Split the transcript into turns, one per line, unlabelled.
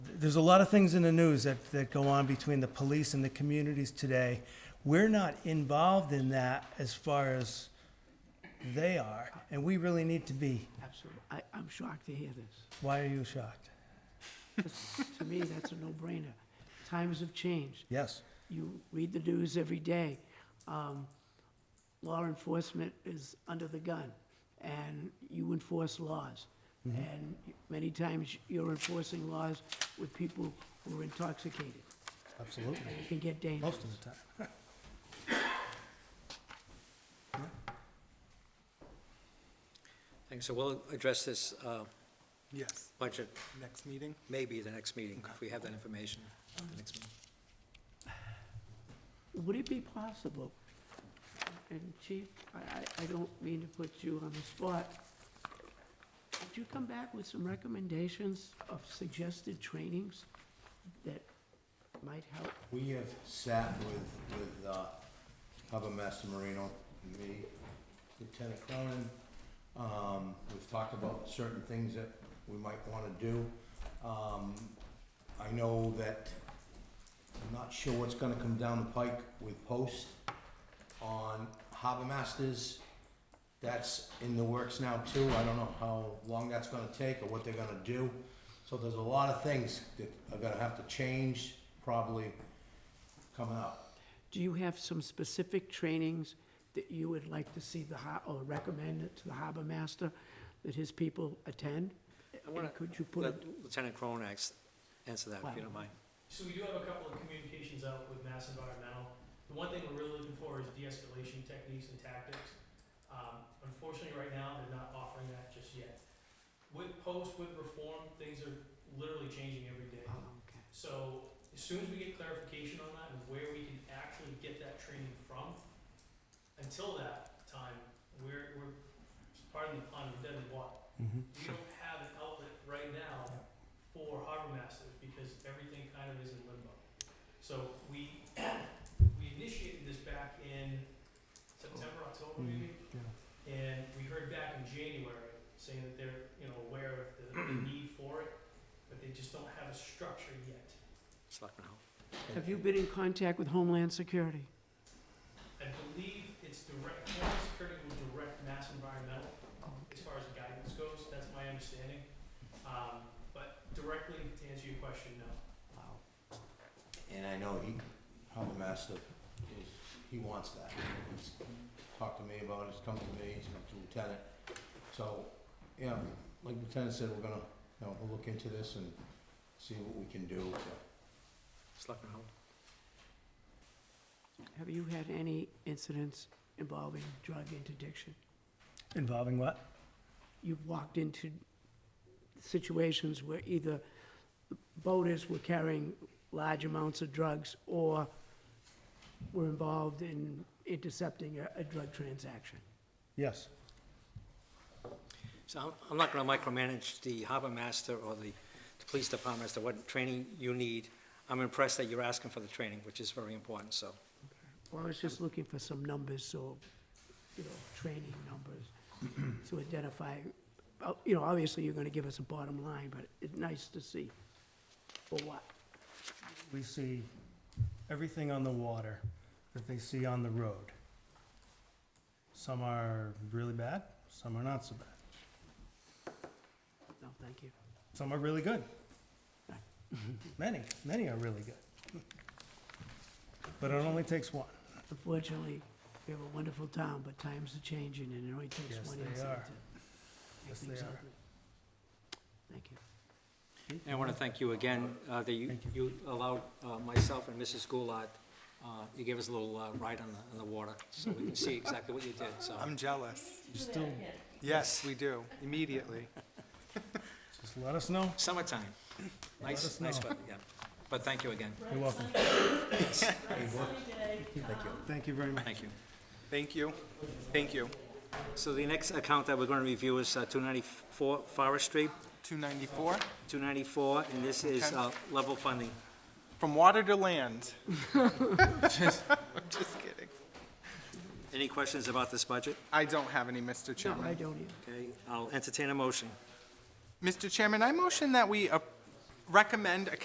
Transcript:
there's a lot of things in the news that, that go on between the police and the communities today. We're not involved in that as far as they are, and we really need to be.
Absolutely. I, I'm shocked to hear this.
Why are you shocked?
To me, that's a no-brainer. Times have changed.
Yes.
You read the news every day. Um, law enforcement is under the gun, and you enforce laws.
Mm-hmm.
And many times, you're enforcing laws with people who are intoxicated.
Absolutely.
It can get dangerous.
Most of the time.
Thanks. So we'll address this uh,
Yes,
budget
next meeting. Um,
maybe the next meeting, if we have that information. at the next meeting.
Would it be possible, and Chief, I, I, I don't mean to put you on the spot, would you come back with some recommendations of suggested trainings that might help?
We have sat with, with, uh, Hubba Master Marino, me, Lieutenant Cronin. Um, we've talked about certain things that we might wanna do. Um, I know that, I'm not sure what's gonna come down the pike with post on Harbor Masters. That's in the works now too. I don't know how long that's gonna take or what they're gonna do. So there's a lot of things that are gonna have to change probably coming up.
Do you have some specific trainings that you would like to see the, har- or recommend it to the harbor master that his people attend?
wanna
And Could you put,
Let
it-
Lieutenant Cronax answer that, if you don't mind.
So we do have a couple of communications out with Mass Environmental. The one thing we're really looking for is de-escalation techniques and tactics. Um, unfortunately, right now, they're not offering that just yet. With post, with reform, things are literally changing every day.
oh, okay.
So as soon as we get clarification on that and where we can actually get that training from, until that time, we're, we're, pardon the pun, we're dead in the water. We don't have an outlet right now for harbor masters because everything kind of is in limbo. So we, we initiated this back in September, October maybe? And we heard back in January saying that they're, you know, aware of the, the need for it, but they just don't have a structure yet.
Selectman Hull.
Have you been in contact with Homeland Security?
I believe it's direct, Homeland Security will direct Mass Environmental as far as guidance goes, that's my understanding. Um, but directly to answer your question, no.
And I know he, Harbor Master, is, he wants that. He's talked to me about it, he's come to me, he's come to Lieutenant. So, yeah, like Lieutenant said, we're gonna, you know, we'll look into this and see what we can do to
Selectman Hull.
Have you had any incidents involving drug interdiction?
Involving what?
You've walked into situations where either boaters were carrying large amounts of drugs or were involved in intercepting a, a drug transaction.
Yes.
So I'm- I'm not going to micromanage the harbor master or the the police department as to what training you need. I'm impressed that you're asking for the training, which is very important, so.
Well, I was just looking for some numbers, so, you know, training numbers to identify, oh, you know, obviously you're gonna give us a bottom line, but it's nice to see for what.
We see everything on the water that they see on the road. Some are really bad, some are not so bad.
No, thank you.
Some are really good. Many, many are really good. But it only takes one.
Unfortunately, we have a wonderful town, but times are changing, and it only takes
Yes,
one
they
incident
are.
to make
Yes, they
things
are.
ugly. Thank you.
And I want to thank you again, uh, that you, you allowed uh, myself and Mrs. Goulart, uh, you gave us a little uh, ride on the, on the water, so we can see exactly what you did, so.
I'm jealous.
You still,
Yes, we do, immediately.
just let us know.
Summertime. Nice,
us
nice
know.
weather, yeah. But thank you again.
You're welcome. Thank you very much.
Thank you.
Thank you. Thank you.
So the next account that we're going to review is uh, 294 Forest Street,
294,
294, and this is
Okay.
uh, level funding.
from water to land. Just kidding.
Any questions about this budget?
I don't have any, Mr.
No, I
Chairman.
don't either.
Okay, I'll entertain a motion.
Mr. Chairman, I motion that we uh, recommend a